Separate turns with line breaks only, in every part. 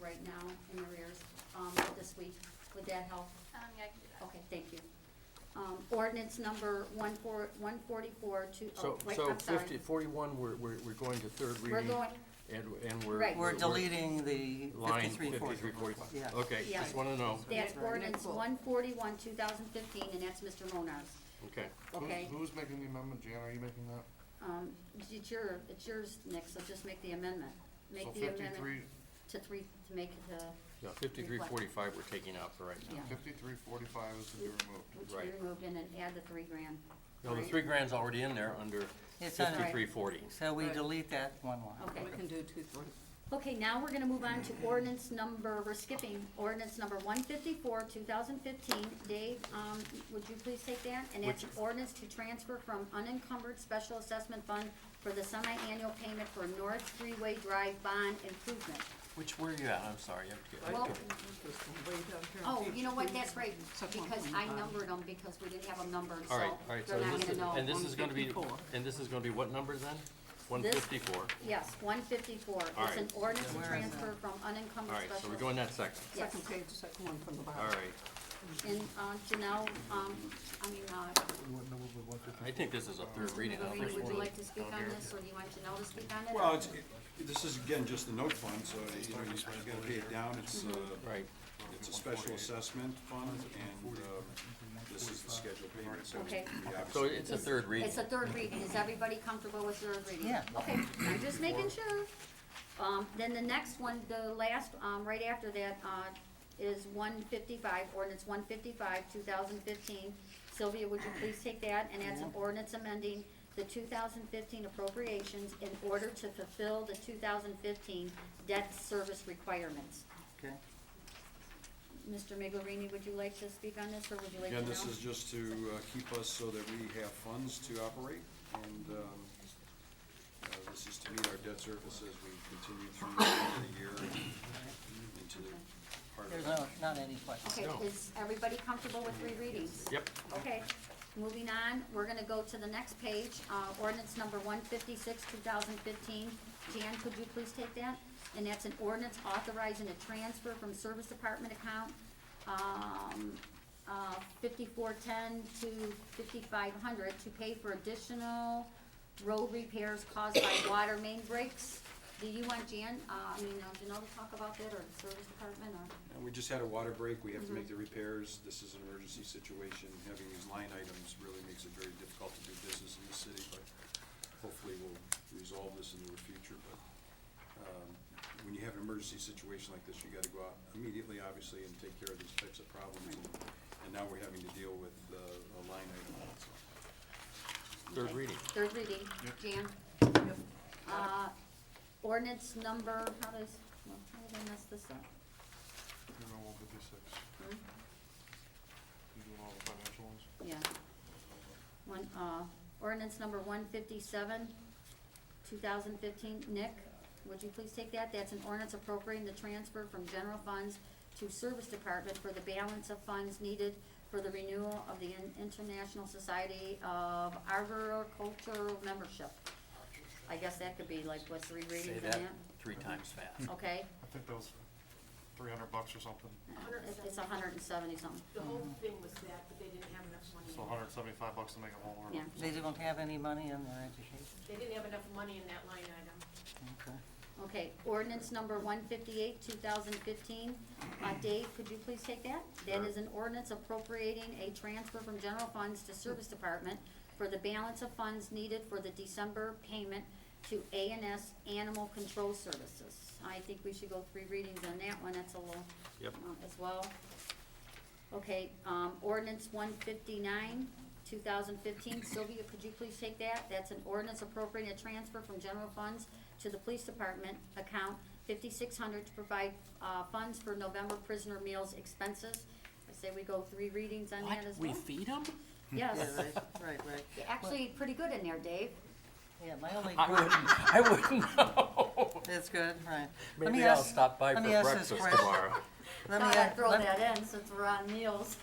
right now in arrears, um, for this week. Would that help?
Um, yeah, I can do that.
Okay, thank you. Um, ordinance number one four, one forty-four to,
So,
oh, wait,
so
I'm sorry.
fifty, forty-one, we're, we're, we're going to third
We're
reading.
going,
And, and we're.
Right.
We're deleting the
Line
fifty-three forty.
fifty-three forty-five.
Yeah.
Okay,
Yeah.
just wanna know,
that's
Right.
ordinance one forty-one, two thousand fifteen, and that's Mr. Monar's.
okay.
Who-
Okay.
Who's making the amendment, Jan, are you making that?
Um, it's your, it's yours, Nick, so just make the amendment.
So
Make the amendment
fifty-three,
to three, to make it, uh,
Yeah, fifty-three forty-five we're taking out for right now.
Yeah.
fifty-three forty-five is to be removed.
which
Right.
we removed in and add the three grand.
No, the
right?
three grand's already in there under
It's under-
fifty-three forty.
So we delete that one line.
Okay.
We can do two, three.
Okay, now we're gonna move on to ordinance number, we're skipping ordinance number one fifty-four, two thousand fifteen. Dave, um, would you please take that? And it's
Which-
ordinance to transfer from unencumbered special assessment fund for the semi-annual payment for North Freeway Drive Bond Improvement.
Which, where are you at? I'm sorry. I have to get-
Well-
There's some way down here.
Oh, you know what, that's right,
Section
because I
1.5.
numbered them, because we didn't have them numbered, so
All right, all right, so
they're not
this
gonna
is,
know.
and this is gonna be,
154.
and this is gonna be what number then? One fifty-four.
Yes, one fifty-four,
All
it's an
right.
ordinance to
Where is
transfer from
All
unencumbered
right,
special.
so we're going that section.
Yes,
Second page, second one from the bottom.
All right.
and, uh, Janelle, um, I mean, uh,
I think this is a third reading. I don't
Marie,
think
would
we're-
you like to speak on this, or do you want Janelle to speak on it?
Well, it's, it- this is again just the note fund, so you know, you just gotta pay it down, it's a,
Right.
it's a special assessment fund, and, um, this is the scheduled payment, so.
Okay.
we
So
obviously-
it's a third reading.
It's a third reading, is everybody comfortable with third reading?
Yeah.
Okay, I'm just making sure. Um, then the next one, the last, um, right after that, uh, is one fifty-five, ordinance one fifty-five, two thousand fifteen. Sylvia, would you please take that, and that's an ordinance amending the two thousand fifteen appropriations in order to fulfill the two thousand fifteen debt service requirements.
Okay.
Mr. Miglerini, would you like to speak on this, or would you like to know?
Again, this is just to uh, keep us so that we have funds to operate, and, um, uh, this is to meet our debt service as we continue through the end of the year and into the part of.
There's no, not any questions.
Okay,
No.
is everybody comfortable with three readings?
Yep.
Okay, moving on, we're gonna go to the next page, uh, ordinance number one fifty-six, two thousand fifteen. Jan, could you please take that? And that's an ordinance authorizing a transfer from service department account, um, uh, fifty-four ten to fifty-five hundred to pay for additional road repairs caused by water main breaks. Do you want Jan, uh, I mean, uh, Janelle to talk about that, or the service department, or?
And we just had a water break, we have to make the repairs, this is an emergency situation, having these line items really makes it very difficult to do business in the city, but hopefully we'll resolve this in the near future, but, um, when you have an emergency situation like this, you gotta go out immediately, obviously, and take care of these types of problems, and, and now we're having to deal with, uh, a line item also.
Third reading.
Third reading, Jan. Uh, ordinance number, how does, well, how did I mess this up?
You're on one fifty-six,
Hmm?
you doing all the financial ones?
Yeah. One, uh, ordinance number one fifty-seven, two thousand fifteen. Nick, would you please take that? That's an ordinance appropriating the transfer from general funds to service department for the balance of funds needed for the renewal of the In- International Society of Arboricultural Membership. I guess that could be like, what, three readings
Say
in
that
that?
three times fast.
Okay,
I think that was three hundred bucks or something,
It's- it's a hundred and seventy something,
The whole thing was that, but they didn't have enough money.
so hundred and seventy-five bucks to make it whole or
yeah,
They don't have any money in their education.
They didn't have enough money in that line item.
Okay.
okay, ordinance number one fifty-eight, two thousand fifteen, uh, Dave, could you please take that? That is an ordinance appropriating a transfer from general funds to service department for the balance of funds needed for the December payment to A and S Animal Control Services. I think we should go three readings on that one, that's a little,
Yep.
uh, as well. Okay, um, ordinance one fifty-nine, two thousand fifteen, Sylvia, could you please take that? That's an ordinance appropriating a transfer from general funds to the police department account fifty-six hundred to provide, uh, funds for November prisoner meals expenses. I say we go three readings on that as well.
feed them?
Yes,
Yeah, right, right, right.
You're actually, pretty good in there, Dave.
Yeah, my only
I
question,
wouldn't, I wouldn't know.
that's good, right. Let me
Maybe I'll
ask-
stop by for
let me ask this
breakfast
question.
tomorrow.
Let me,
Thought I'd
a-
throw
let-
that in since we're on meals.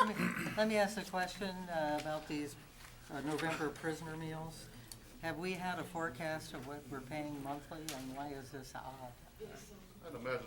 let me, let me ask a question uh, about these uh, November prisoner meals. Have we had a forecast of what we're paying monthly and why is this odd?
I'd imagine